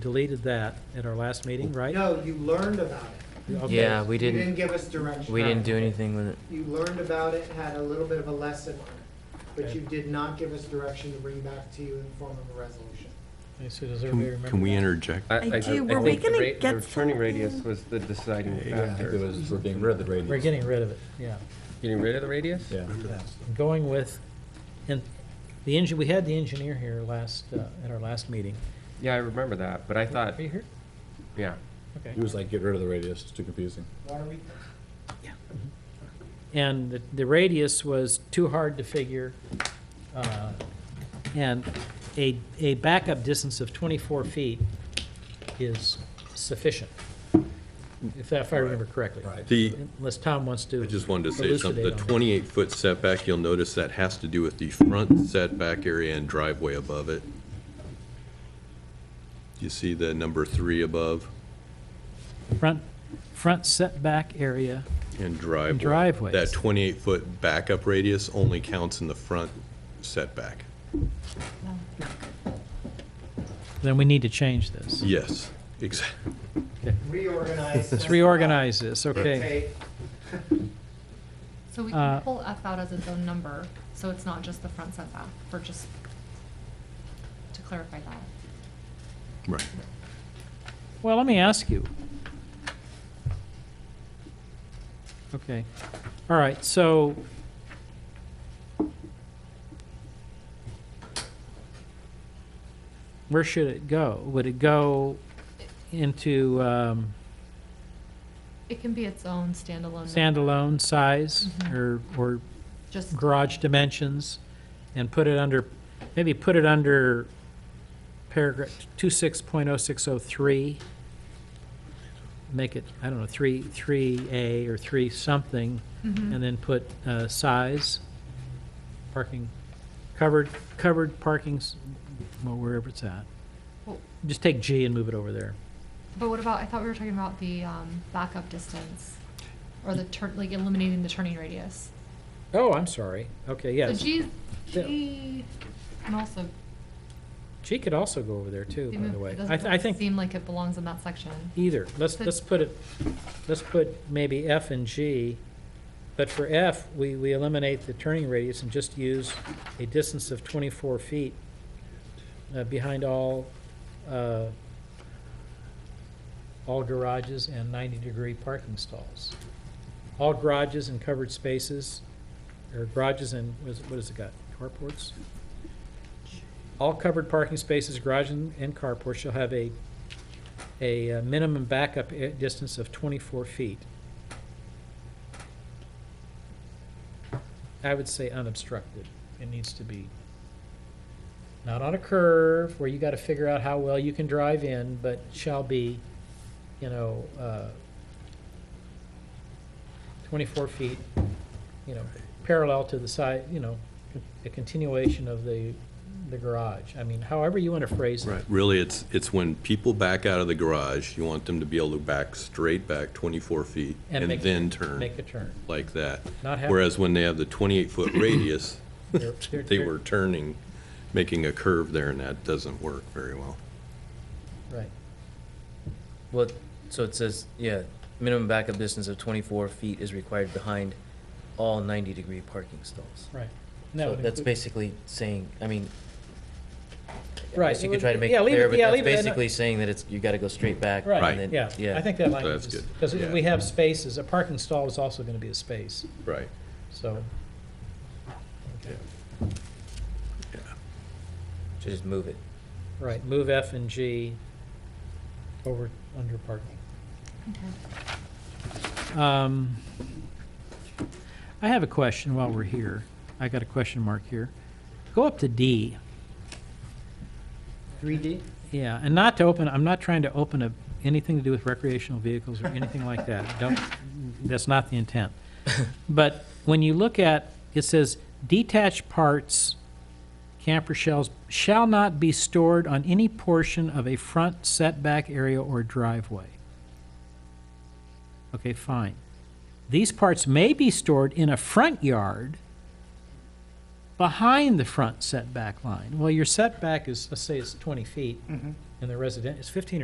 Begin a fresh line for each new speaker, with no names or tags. deleted that at our last meeting, right?
No, you learned about it.
Okay.
Yeah, we
You didn't
didn't,
give us direction.
we didn't do anything with it.
You learned about it, had a little bit of a lesson on it, but
Okay.
you did not give us direction to bring back to you in the form of a resolution.
Okay, So does everybody
Can
remember?
can we
that?
interject?
I
I
I-
do.
I
Were we
think the
gonna
ra-
get
The returning
something?
radius was the deciding
Yeah, I
It
factor.
was, we're getting rid of the
We're
radius.
getting rid of it, yeah.
Getting rid of the radius?
Yeah.
Going with, and the engine, we had the engineer here last, uh, at our last meeting.
Yeah, I remember that, but I
Uh,
thought,
Are you here?
yeah.
Okay.
He was like, get rid of the radius, it's too confusing.
Why are we,
And the- the radius was too hard to figure. uh, And a, a backup distance of 24 feet is sufficient, if that- if I remember correctly.
Right.
The,
Unless Tom wants to.
I just wanted to say something, the
elucidate on it.
28-foot setback, you'll notice that has to do with the front setback area and driveway above it. You see the number three above
Front, front setback area,
and driveway?
Driveways.
That 28-foot backup radius only counts in the front setback.
then we need to change this.
Yes, exactly.
reorganize.
Let's reorganize this, okay.
Take-
So we
Uh,
can pull F out as its own number, so it's not just the front setback, for just, to clarify that.
Right.
Well, let me ask you. Okay, all right, so. Where should it go? Would it go into um,
It can be its own standalone number,
standalone size or, or
just,
garage dimensions and put it under, maybe put it under paragraph 26.0603. Make it, I don't know, 3, 3A or 3 something,
Mm-hmm.
and then put uh, size, parking, covered, covered parking, s- well, wherever it's at.
Well-
Just take G and move it over there.
but what about, I thought we were talking about the, um, backup distance, or the turn, like eliminating the turning radius.
Oh, I'm sorry. Okay,
So
yes.
G,
Yeah.
G, and also,
G could also go over there too,
it
by the way. I th- I
doesn't
think
seem like it belongs in that section.
either. Let's,
So-
let's put it, let's put maybe F and G, but for F, we, we eliminate the turning radius and just use a distance of 24 feet uh, behind all, uh, all garages and 90-degree parking stalls. All garages and covered spaces, or garages and, what is it- what has it got, carports? All covered parking spaces, garages and- and carports shall have a a uh, minimum backup i- distance of 24 feet. I would say unobstructed. It needs to be not on a curve where you got to figure out how well you can drive in, but shall be, you know, uh, 24 feet, you know, parallel to the side, you know, con- a continuation of the, the garage. I mean, however you want to phrase it.
Right, really, it's, it's when people back out of the garage, you want them to be able to back straight back 24 feet
And
and
make-
then turn
Make a turn.
like that.
Not have-
Whereas when they have the 28-foot radius,
They're- they're-
they
they're-
were turning, making a curve there, and that doesn't work very well.
Right.
Well, so it says, yeah, minimum backup distance of twenty-four feet is required behind all ninety-degree parking stalls.
Right.
So that's basically saying, I mean, I
Right.
guess you could try to make it
Yeah, leave
clear,
it-
but
yeah,
that's
leave it. I know-
basically saying that it's, you gotta go straight back. and
Right,
then-
yeah. I think that language
That's
is,
good.
because
Yeah.
we have spaces, a parking stall is also going to be a space,
Right.
so.
Should Just move it.
Right, move F and G over, under parking.
Okay.
Um, I have a question while we're here. I got a question mark here. Go up to D.
3D?
Yeah, and not to open, I'm not trying to open a, anything to do with recreational vehicles or anything like that. Don't, that's not the intent. But when you look at, it says detached parts, camper shells, shall not be stored on any portion of a front setback area or driveway. Okay, fine. These parts may be stored in a front yard, behind the front setback line. Well, your setback is, let's say it's 20 feet, and the resident, it's 15